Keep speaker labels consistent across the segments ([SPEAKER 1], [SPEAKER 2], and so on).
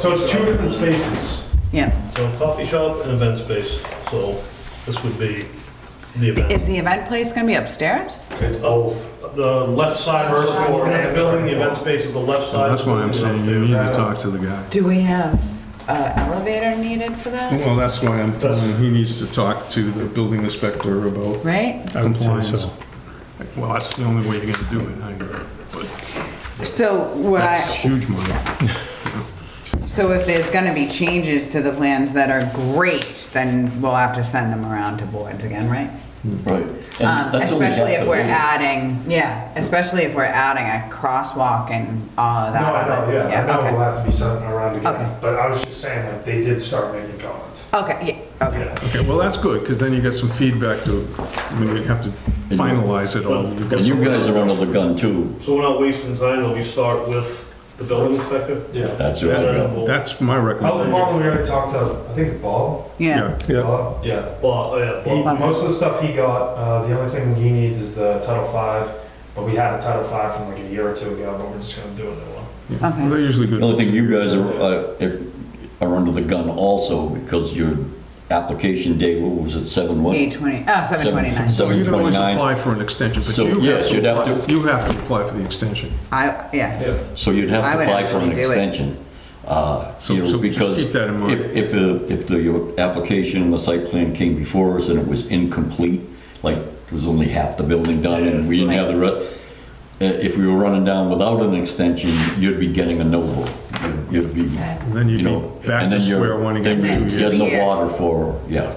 [SPEAKER 1] So it's two different spaces.
[SPEAKER 2] Yeah,
[SPEAKER 3] So coffee shop and event space, so this would be the
[SPEAKER 2] is
[SPEAKER 3] event.
[SPEAKER 2] the event place gonna be upstairs?
[SPEAKER 1] It's both.
[SPEAKER 3] The left side of
[SPEAKER 1] First floor
[SPEAKER 3] the
[SPEAKER 1] and
[SPEAKER 3] building, the
[SPEAKER 1] second
[SPEAKER 3] event
[SPEAKER 1] floor.
[SPEAKER 3] space is the left
[SPEAKER 4] So
[SPEAKER 3] side.
[SPEAKER 4] that's why I'm
[SPEAKER 3] of the
[SPEAKER 4] saying you
[SPEAKER 3] building.
[SPEAKER 4] need to talk to the guy.
[SPEAKER 2] Do we have an elevator needed for that?
[SPEAKER 4] Well, that's why I'm telling him he needs to talk to the building inspector about
[SPEAKER 2] Right?
[SPEAKER 5] I would say
[SPEAKER 4] compliance.
[SPEAKER 5] so.
[SPEAKER 4] Well, that's the only way you're gonna do it, I agree. But
[SPEAKER 2] So what
[SPEAKER 4] that's
[SPEAKER 2] I,
[SPEAKER 4] huge money.
[SPEAKER 2] so if there's gonna be changes to the plans that are great, then we'll have to send them around to boards again, right?
[SPEAKER 6] Right.
[SPEAKER 2] Um,
[SPEAKER 6] And that's what we
[SPEAKER 2] especially
[SPEAKER 6] have
[SPEAKER 2] if
[SPEAKER 6] to
[SPEAKER 2] we're
[SPEAKER 6] do.
[SPEAKER 2] adding, yeah, especially if we're adding a crosswalk and all of
[SPEAKER 1] No,
[SPEAKER 2] that.
[SPEAKER 1] I know, yeah, I know
[SPEAKER 2] okay.
[SPEAKER 1] it'll have to be something around
[SPEAKER 2] Okay.
[SPEAKER 1] again, but I was just saying, like, they did start making comments.
[SPEAKER 2] Okay, yeah, okay.
[SPEAKER 1] Yeah.
[SPEAKER 4] Okay, well, that's good, because then you get some feedback to, I mean, you have to finalize it all. You've got
[SPEAKER 6] And you
[SPEAKER 4] some-
[SPEAKER 6] guys are under the gun too.
[SPEAKER 3] So we're not wasting time, we start with the building inspector?
[SPEAKER 1] Yeah.
[SPEAKER 6] That's right. yeah.
[SPEAKER 4] That's my
[SPEAKER 1] How
[SPEAKER 4] recommendation.
[SPEAKER 1] long we already talked to, I think it's Bob?
[SPEAKER 2] Yeah,
[SPEAKER 5] Yeah,
[SPEAKER 1] Bob? Yeah.
[SPEAKER 3] Well, oh, yeah,
[SPEAKER 1] He,
[SPEAKER 3] well,
[SPEAKER 2] Bob.
[SPEAKER 1] most of the stuff he got, uh, the only thing he needs is the Title Five, but we had a Title Five from like a year or two ago, but we're just gonna do a new one.
[SPEAKER 4] Well, They're usually good.
[SPEAKER 6] The only thing you guys are, uh, if- are under the gun also because your application day, what was it, seven what?
[SPEAKER 2] eight twenty, oh, seven twenty-nine.
[SPEAKER 4] Well, You
[SPEAKER 6] Seven
[SPEAKER 4] can always
[SPEAKER 6] twenty-nine.
[SPEAKER 4] apply for an extension, but
[SPEAKER 6] So,
[SPEAKER 4] you
[SPEAKER 6] yes,
[SPEAKER 4] have to,
[SPEAKER 6] you'd have
[SPEAKER 4] apply-
[SPEAKER 6] to-
[SPEAKER 4] you have to apply for the extension.
[SPEAKER 2] I, yeah,
[SPEAKER 6] So you'd have
[SPEAKER 2] I
[SPEAKER 6] to
[SPEAKER 2] would
[SPEAKER 6] apply for an
[SPEAKER 2] actually do it.
[SPEAKER 6] extension. Uh,
[SPEAKER 4] So-
[SPEAKER 6] You
[SPEAKER 4] so
[SPEAKER 6] know,
[SPEAKER 4] just
[SPEAKER 6] because
[SPEAKER 4] keep that in mind.
[SPEAKER 6] if, if, uh, if the, your application, the site plan came before us and it was incomplete, like there was only half the building done and we didn't have the, re- uh, if we were running down without an extension, you'd be getting a no vote. You'd- You'd be,
[SPEAKER 4] And then you'd
[SPEAKER 6] you
[SPEAKER 4] be
[SPEAKER 6] know.
[SPEAKER 4] back
[SPEAKER 6] and
[SPEAKER 4] to
[SPEAKER 6] then you're-
[SPEAKER 4] square one again
[SPEAKER 6] then
[SPEAKER 4] for
[SPEAKER 6] you're
[SPEAKER 4] two
[SPEAKER 6] Getting the
[SPEAKER 2] years.
[SPEAKER 6] water for, yeah.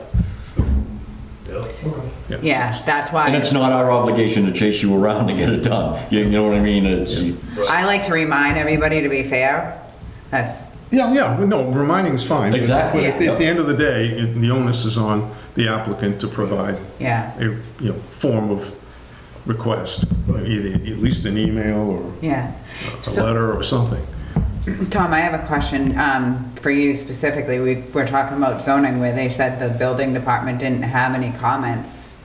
[SPEAKER 3] yeah.
[SPEAKER 2] yeah, that's why.
[SPEAKER 6] And it's not our obligation to chase you around to get it done. You you know what I mean? It's,
[SPEAKER 2] I like to remind everybody to be fair. That's,
[SPEAKER 4] Yeah, yeah, well, no, reminding's fine.
[SPEAKER 6] Exactly.
[SPEAKER 4] But at the- at the end of the day, it- the onus is on the applicant to provide
[SPEAKER 2] yeah,
[SPEAKER 4] a, you know, form of request, either, at least an email or
[SPEAKER 2] yeah.
[SPEAKER 4] a
[SPEAKER 2] So,
[SPEAKER 4] letter or something.
[SPEAKER 2] Tom, I have a question um, for you specifically. We were talking about zoning where they said the building department didn't have any comments.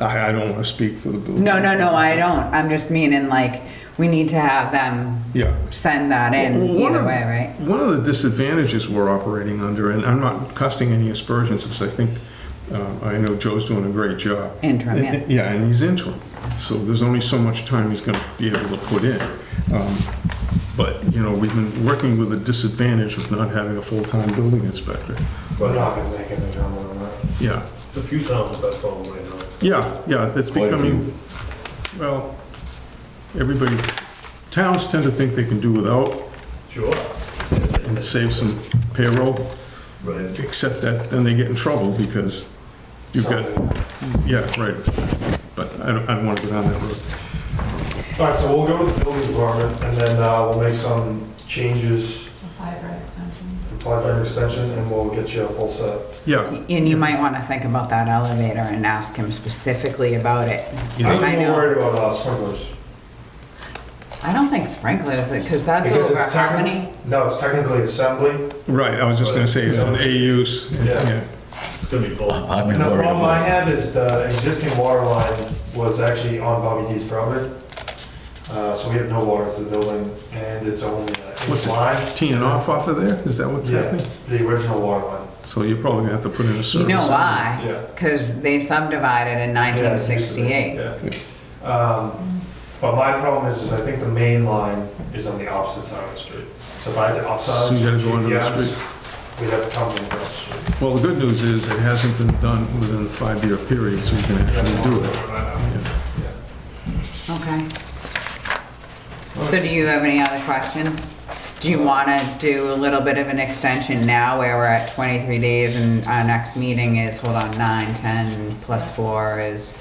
[SPEAKER 4] I, I don't want to speak for the building.
[SPEAKER 2] No, no, no, I don't. I'm just meaning like, we need to have them
[SPEAKER 4] Yeah.
[SPEAKER 2] send that in
[SPEAKER 4] Well, one
[SPEAKER 2] either
[SPEAKER 4] of-
[SPEAKER 2] way, right?
[SPEAKER 4] One of the disadvantages we're operating under, and I'm not casting any aspersions, because I think, um, I know Joe's doing a great job.
[SPEAKER 2] Interim, yeah.
[SPEAKER 4] Yeah, and he's interim, so there's only so much time he's gonna be able to put in. Um, But, you know, we've been working with the disadvantage of not having a full-time building inspector.
[SPEAKER 1] We're not gonna make any comment on that.
[SPEAKER 4] Yeah,
[SPEAKER 3] It's a few towns that follow right now.
[SPEAKER 4] yeah, yeah, that's
[SPEAKER 6] Quite a
[SPEAKER 4] becoming, well, everybody, towns tend to think they can do without
[SPEAKER 3] Sure.
[SPEAKER 4] and save some payroll.
[SPEAKER 3] Right.
[SPEAKER 4] Except that then they get in trouble because you've got, yeah, right. But I don't, I don't want to go down that road.
[SPEAKER 1] All right, so we'll go with the building department, and then uh, we'll make some changes,
[SPEAKER 7] Apply for an extension.
[SPEAKER 1] apply for an extension, and we'll get you a full set.
[SPEAKER 4] Yeah,
[SPEAKER 2] And you might want to think about that elevator and ask him specifically about it.
[SPEAKER 4] Yeah.
[SPEAKER 1] I was
[SPEAKER 2] I
[SPEAKER 1] more
[SPEAKER 2] know.
[SPEAKER 1] worried about uh, sprinklers.
[SPEAKER 2] I don't think sprinklers, because that's
[SPEAKER 1] Because
[SPEAKER 2] over
[SPEAKER 1] it's
[SPEAKER 2] how
[SPEAKER 1] techni-
[SPEAKER 2] many?
[SPEAKER 1] No, it's technically assembly.
[SPEAKER 4] right, I was just going to say it's an A use.
[SPEAKER 1] Yeah.
[SPEAKER 4] Yeah,
[SPEAKER 3] It's gonna be both.
[SPEAKER 6] I've
[SPEAKER 1] And
[SPEAKER 6] been
[SPEAKER 1] the
[SPEAKER 6] worried
[SPEAKER 1] problem I
[SPEAKER 6] about it.
[SPEAKER 1] have is the existing water line was actually on Bobby D's property. Uh, So we have no water to the building, and it's only
[SPEAKER 4] What's
[SPEAKER 1] a
[SPEAKER 4] it?
[SPEAKER 1] line.
[SPEAKER 4] Teeing off off of there, is that what's
[SPEAKER 1] Yeah,
[SPEAKER 4] happening?
[SPEAKER 1] the original water line.
[SPEAKER 4] So you're probably going to have to put in a service.
[SPEAKER 2] You know
[SPEAKER 4] area.
[SPEAKER 2] why?
[SPEAKER 1] Yeah.
[SPEAKER 2] Because they subdivided in
[SPEAKER 1] Yeah, it used to be,
[SPEAKER 2] 1968.
[SPEAKER 1] yeah. Um, But my problem is, is I think the main line is on the opposite side of the street. So if I had to upsize.
[SPEAKER 4] So you gotta go under the
[SPEAKER 1] GPS,
[SPEAKER 4] street.
[SPEAKER 1] We'd have to come in across the street.
[SPEAKER 4] Well, the good news is it hasn't been done within the five-year period, so you can actually do it.
[SPEAKER 2] Okay. So do you have any other questions? Do you want to do a little bit of an extension now where we're at 23 days and our next meeting is, hold on, 9, 10 plus 4 is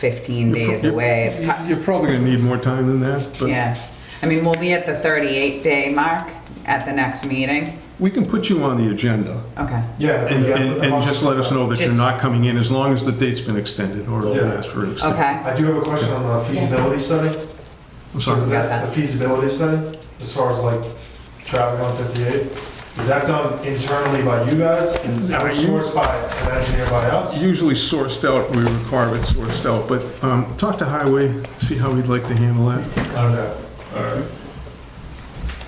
[SPEAKER 2] 15
[SPEAKER 4] You're pro-
[SPEAKER 2] days
[SPEAKER 4] you're-
[SPEAKER 2] away? It's cut-
[SPEAKER 4] You're probably going to need more time than that, but
[SPEAKER 2] Yeah. I mean, we'll be at the 38-day mark at the next meeting.
[SPEAKER 4] we can put you on the agenda.
[SPEAKER 2] Okay.
[SPEAKER 1] Yeah. if we
[SPEAKER 4] And,
[SPEAKER 1] got-
[SPEAKER 4] and, and just let us know that you're
[SPEAKER 2] Just-
[SPEAKER 4] not coming in, as long as the date's been extended, or we'll
[SPEAKER 1] Yeah.
[SPEAKER 4] ask for an extension.
[SPEAKER 2] Okay.
[SPEAKER 1] I do have a question on the feasibility study.
[SPEAKER 4] I'm
[SPEAKER 1] So is
[SPEAKER 4] sorry,
[SPEAKER 1] that the feasibility study, as far as like traffic on 58? Is that done internally by you guys, outsourced by an engineer by us?
[SPEAKER 4] usually sourced out, we require it sourced out, but, um, talk to Highway, see how we'd like to handle that.
[SPEAKER 1] Okay, all right.